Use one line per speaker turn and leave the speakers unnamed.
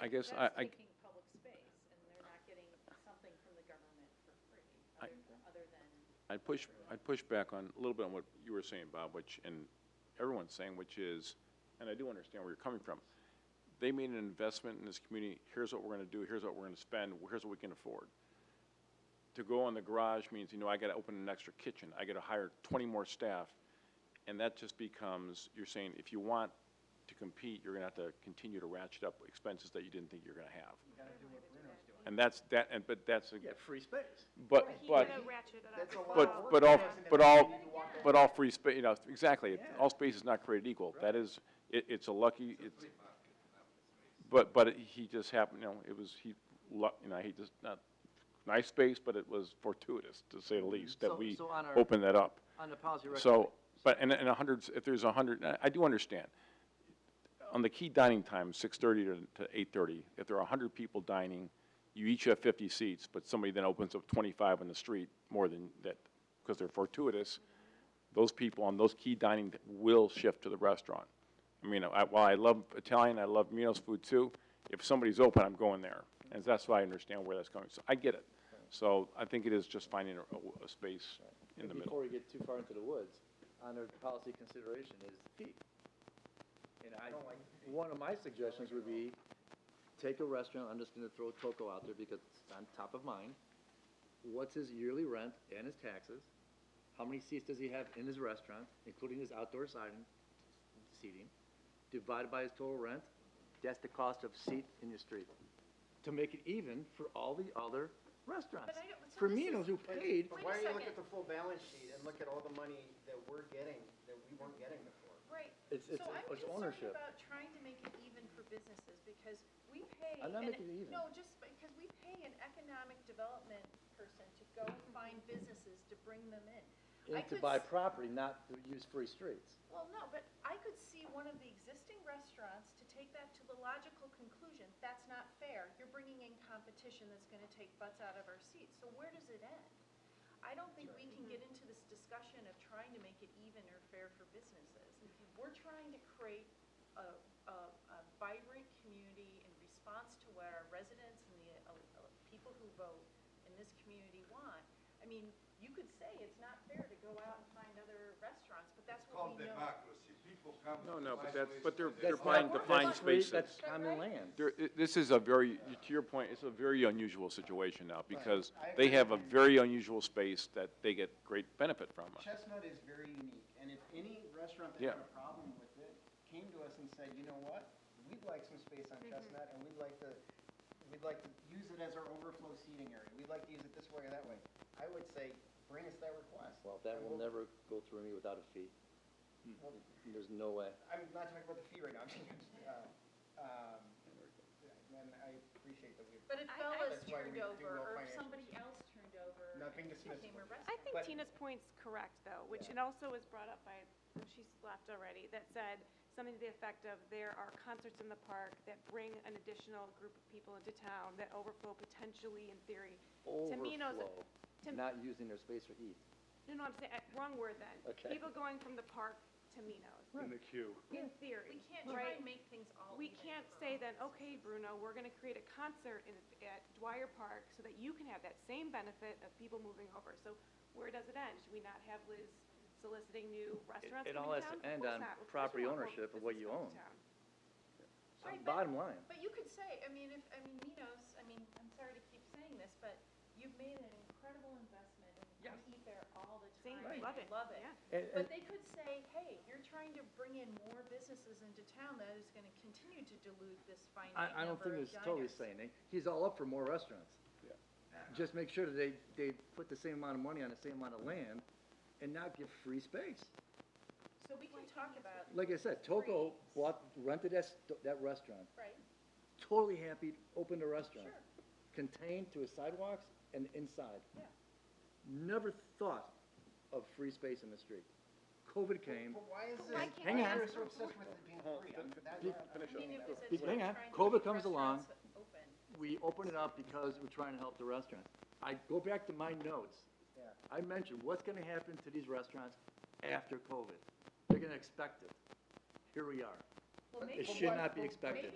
I guess I,
That's
I,
taking public space, and they're not getting something from the government for free,
I-
other, other than,
I'd push, I'd push back on, a little bit on what you were saying, Bob, which, and everyone's saying, which is, and I do understand where you're coming from. They made an investment in this community, here's what we're gonna do, here's what we're gonna spend, here's what we can afford. To go on the garage means, you know, I gotta open an extra kitchen, I gotta hire twenty more staff. And that just becomes, you're saying, if you want to compete, you're gonna have to continue to ratchet up expenses that you didn't think you're gonna have. And that's, that, and, but that's, a-
Yeah, free space.
but,
He's
but.
gonna ratchet it up.
That's a lot
But,
of
but
work.
all,
Doesn't
but all,
necessarily need to walk the
but all free space, you know, exactly,
Yeah.
all space is not created equal. That is, it, it's a lucky, it's, but, but he just happened, you know, it was, he, luck, you know, he just, not, nice space, but it was fortuitous, to
Mm-hmm.
say the least, that
So-
we
so on our-
opened that up.
On the policy record.
So, but, and, and a hundred, if there's a hundred, I, I do understand. On the key dining time, six-thirty to, to eight-thirty, if there are a hundred people dining, you each have fifty seats, but somebody then opens up twenty-five on the street more than that, because they're fortuitous, those people on those key dining th- will shift to the restaurant. I mean, I, while I love Italian, I love Minos food too, if somebody's open, I'm going there. And that's why I understand where that's coming, so I get it. So I think it is just finding a- a, a space in the
And
middle.
Before we get too far into the woods, on our policy consideration is fee. And I, one of my suggestions would be, take a restaurant, I'm just gonna throw Toco out there because it's on top of mind. What's his yearly rent and his taxes? How many seats does he have in his restaurant, including his outdoor siding, seating? Divided by his total rent, that's the cost of seat in your street. To make it even for all the other restaurants.
But I don't- so
For
this is-
Minos, who paid
Wait
But
a
why don't you
second.
look at the full balance sheet and look at all the money that we're getting, that we weren't getting before?
right.
It's- it's-
So I'm
it's ownership.
concerned about trying to make it even for businesses, because we pay.
I'm not
an-
making it even.
No, just because we pay an economic development person to go find businesses to bring them in. I
And to
could
buy
s-
property, not to use free streets.
Well, no, but I could see one of the existing restaurants to take that to the logical conclusion, that's not fair. You're bringing in competition that's gonna take butts out of our seats, so where does it end? I don't think we can get into this discussion of trying to make it even or fair for businesses. We're trying to create a, a, a vibrant community in response to what our residents and the, uh, uh, people who vote in this community want. I mean, you could say it's not fair to go out and find other restaurants, but that's what
called
we know.
democracy. People come.
No, no, but
buy
that's,
space
but they're,
and they
they're
buy
buying
not- that's
defined
not-
spaces.
That's common land.
There, i- this is a very, to your point, it's a very unusual situation now, because
I
they
agree.
have a very unusual space that they get great benefit from.
Chestnut is very unique, and if any restaurant that
Yeah.
had a problem with it came to us and said, you know what? We'd like some space on Chestnut, and we'd like to, we'd like to use it as our overflow seating area. We'd like to use it this way or that way. I would say, bring us that request.
Well, that
and
will
we'll-
never go through me without a fee.
we'll-
Hmm.
There's no way.
I'm not talking about the fee right now, I'm just, uh, um, and I appreciate that we've,
But if
I- I-
Bella's
That's why
turned
we do
over,
no
or if
financials.
somebody else turned over.
Not being
and it became a
dismissible.
restaurant.
I think
But-
Tina's point's correct, though, which it also was brought up by, well, she's left already, that said something to the effect of, there are concerts in the park that bring an additional group of people into town that overflow potentially in theory. To me, knows-
Overflow,
to-
not using their space for eat.
No, no, I'm saying, uh, wrong word then.
Okay.
People going from the park to Minos,
Right.
in the queue.
in
We
theory.
can't try
Right.
and make things all
We
even
can't
for
say
all.
then, okay, Bruno, we're gonna create a concert in, at Dwyer Park so that you can have that same benefit of people moving over. So where does it end? Should we not have Liz soliciting new restaurants
it
coming
all
down?
has to
Of
end
course
on
not. Of course
property
you want more
ownership of what you
business coming
own.
to town.
Right, but-
Bottom line.
But you could say, I mean, if, I mean, Minos, I mean, I'm sorry to keep saying this, but you've made an incredible investment and we eat there all the
Same,
time. and
love
I
it,
Love it.
yeah.
And- and-
But they could say, hey, you're trying to bring in more businesses into town, that is gonna continue to dilute this finite number of
I, I don't think it's totally
diners."
saying, it. he's all up for more restaurants. Just make sure that they, they put the same amount of money on the same amount of land and not give free space.
So we can talk about,
Like I said, Toco bought, rented that, st- that restaurant,
right,
totally happy, opened a restaurant.
Sure.
Contained to his sidewalks and inside.
yeah.
Never thought of free space in the street. COVID came,
but why is this?
Why can't
Hang
why
on.
are we so obsessed with it being free? I'm- that-
I mean, it was a-
Hang on.
trying to
COVID
keep
comes along.
restaurants Open.
we open it up because we're trying to help the restaurants. I go back to my notes.
Yeah.
I mentioned what's gonna happen to these restaurants after COVID. They're gonna expect it. Here we are.
Well,
It
maybe-
should not be expected.